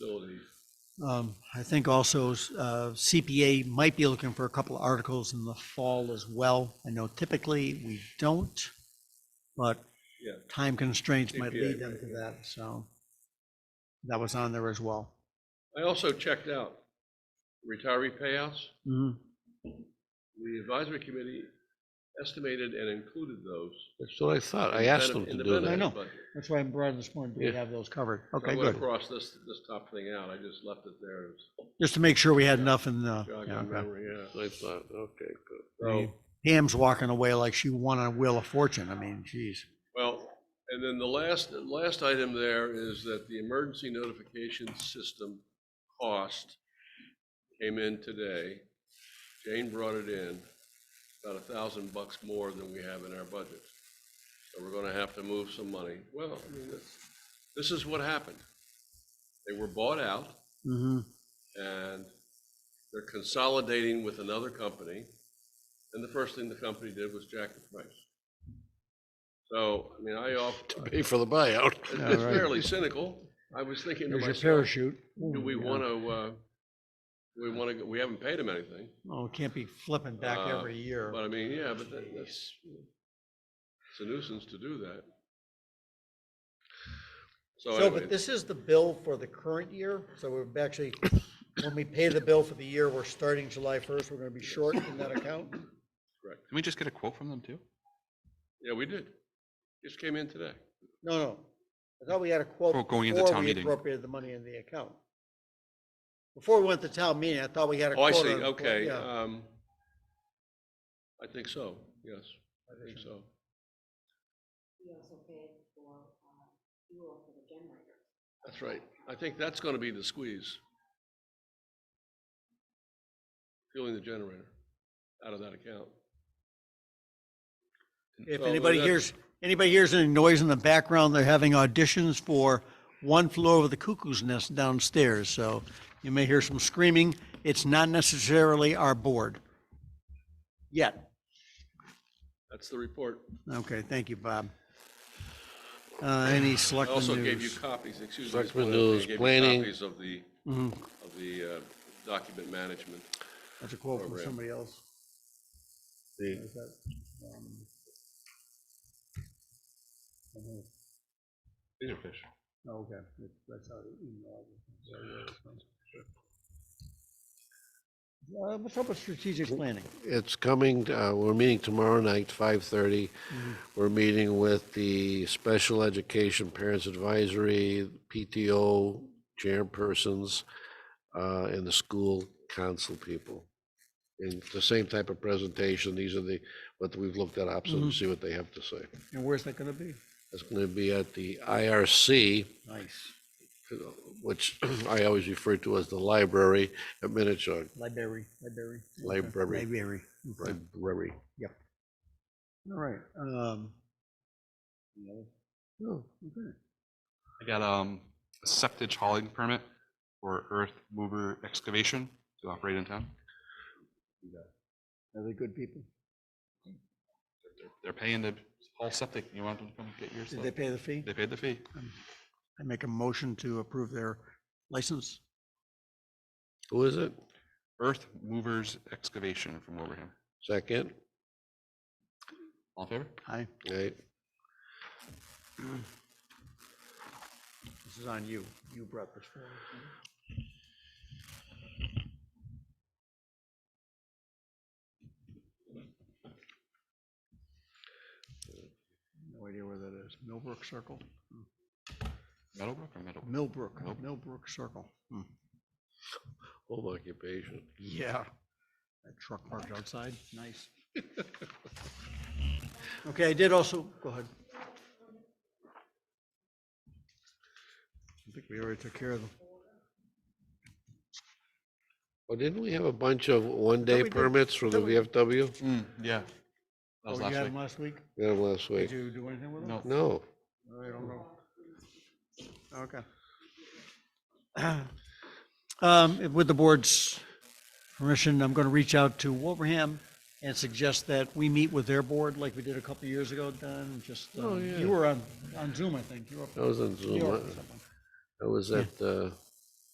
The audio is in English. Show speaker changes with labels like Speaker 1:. Speaker 1: Um, I think also uh, CPA might be looking for a couple of articles in the fall as well. I know typically we don't, but
Speaker 2: Yeah.
Speaker 1: time constraints might
Speaker 2: CPA,
Speaker 1: lead them to that, so that was on there as well.
Speaker 2: I also checked out retiree payouts.
Speaker 1: Mhm.
Speaker 2: The advisory committee estimated and included those.
Speaker 3: That's what I thought. I
Speaker 2: in the
Speaker 3: asked
Speaker 2: benef-
Speaker 3: them
Speaker 2: in
Speaker 3: to
Speaker 2: the
Speaker 3: do
Speaker 2: benefit
Speaker 1: I know.
Speaker 3: that.
Speaker 2: budget.
Speaker 1: That's why I'm brought this morning, do we
Speaker 3: Yeah.
Speaker 1: have those covered?
Speaker 2: So I
Speaker 1: Okay,
Speaker 2: went
Speaker 1: good.
Speaker 2: across this, this top thing out. I just left it there. It was
Speaker 1: Just to make sure we had enough in the, yeah,
Speaker 2: jogging
Speaker 1: okay.
Speaker 2: memory, yeah.
Speaker 3: I thought, okay, good.
Speaker 2: So,
Speaker 1: Pam's walking away like she won a wheel of fortune. I mean, geez.
Speaker 2: well, and then the last, the last item there is that the emergency notification system cost came in today. Jane brought it in, about a thousand bucks more than we have in our budget. So we're gonna have to move some money. Well, I mean, that's, this is what happened. They were bought out.
Speaker 1: Mhm.
Speaker 2: and they're consolidating with another company. And the first thing the company did was jack the price. So, I mean, I off,
Speaker 3: Pay for the buyout.
Speaker 1: Yeah,
Speaker 2: it's
Speaker 1: right.
Speaker 2: fairly cynical. I was thinking to
Speaker 1: There's your
Speaker 2: myself,
Speaker 1: parachute.
Speaker 2: do we
Speaker 1: Yeah.
Speaker 2: want to, uh, we want to, we haven't paid them anything.
Speaker 1: Oh, it can't be flipping back
Speaker 2: Uh,
Speaker 1: every year.
Speaker 2: But I mean, yeah, but that- that's, it's a nuisance to do that. So
Speaker 1: So, but
Speaker 2: anyway,
Speaker 1: this is the bill for the current year, so we're actually, when we pay the bill for the year, we're starting July first, we're gonna be short in that account.
Speaker 4: Can we just get a quote from them too?
Speaker 2: yeah, we did. Just came in today.
Speaker 1: No, no, I thought we had a quote.
Speaker 4: Oh, going into
Speaker 1: before
Speaker 4: town
Speaker 1: we
Speaker 4: meeting.
Speaker 1: Appropriated the money in the account. Before we went to town meeting, I thought we had a
Speaker 2: Oh, I
Speaker 1: quote.
Speaker 2: see,
Speaker 1: on the quote,
Speaker 2: okay.
Speaker 1: yeah.
Speaker 2: um, I think so, yes, I think so.
Speaker 5: We also paid for uh, fuel for the generator.
Speaker 2: That's right. I think that's gonna be the squeeze. Fueling the generator out of that account.
Speaker 1: If
Speaker 2: so
Speaker 1: anybody
Speaker 2: that-
Speaker 1: hears, anybody hears any noise in the background, they're having auditions for One Flew Over the Cuckoo's Nest downstairs, so you may hear some screaming. It's not necessarily our board. Yet.
Speaker 2: That's the report.
Speaker 1: Okay, thank you, Bob. Uh, any
Speaker 2: I
Speaker 1: selectmen
Speaker 2: also gave you
Speaker 1: news?
Speaker 2: copies, excuse me. just
Speaker 3: Selectmen
Speaker 2: one other thing. I
Speaker 3: news,
Speaker 2: gave you
Speaker 3: planning. Mm-hmm.
Speaker 2: Copies of the, of the uh, document management.
Speaker 1: That's a quote from
Speaker 2: program.
Speaker 1: somebody else.
Speaker 3: The-
Speaker 1: Is that, um, mhm. Oh, Okay, That's- that's how the email is. So, yeah, it's fine. Uh, what's up with strategic planning?
Speaker 3: It's coming, uh, we're meeting tomorrow night, 5:30. We're meeting with the Special Education Parents Advisory, PTO chairpersons, uh, and the school council people. And it's the same type of presentation, these are the, what we've looked at options, and see what they have to say.
Speaker 1: And where's that gonna be?
Speaker 3: It's going to be at the IRC,
Speaker 1: Nice,
Speaker 3: uh, which I always refer to as the library at Minichog,
Speaker 1: library, library. okay.
Speaker 3: Library.
Speaker 1: Library. okay.
Speaker 3: library.
Speaker 1: All right, um. Oh, okay.
Speaker 4: I got um, a septic hauling permit for earth mover excavation to operate in town.
Speaker 1: Are they good people?
Speaker 4: They're- They're paying to haul septic. You want them to come get your
Speaker 1: Did they
Speaker 4: stuff?
Speaker 1: pay the fee?
Speaker 4: They paid the fee.
Speaker 1: I make a motion to approve their license.
Speaker 3: Who is it?
Speaker 4: Earth movers excavation from Wilbraham.
Speaker 3: Second?
Speaker 4: All in favor?
Speaker 1: Aye,
Speaker 3: Aye.
Speaker 1: this is on you. You brought this forward. didn't you? No idea where that is. Millbrook Circle?
Speaker 4: Meadowbrook or Meadowbrook?
Speaker 1: Millbrook,
Speaker 4: Nope.
Speaker 1: Millbrook Circle. Hmm.
Speaker 3: Home occupation.
Speaker 1: Yeah. That truck parked outside, nice. Okay, I did also, go ahead. I think we already took care of them.
Speaker 3: Well, didn't we have a bunch of one-day
Speaker 1: we did.
Speaker 3: permits from the
Speaker 1: Thought we-
Speaker 3: VFW?
Speaker 4: Mm, Yeah. That
Speaker 1: Hmm, Oh, you
Speaker 4: was last
Speaker 1: had
Speaker 4: week.
Speaker 1: them last week?
Speaker 3: We had 'em last
Speaker 1: Did
Speaker 3: week.
Speaker 1: you do anything with them?
Speaker 4: No.
Speaker 3: No,
Speaker 1: I don't know. Okay. Um, With the board's permission, I'm going to reach out to Wolverham and suggest that we meet with their board like we did a couple of years ago, Don, just, um,
Speaker 3: yeah.
Speaker 1: you were on, on Zoom, I think. You were up
Speaker 3: I was on
Speaker 1: New
Speaker 3: Zoom.
Speaker 1: York or
Speaker 3: I-
Speaker 1: something.
Speaker 3: I was at, uh,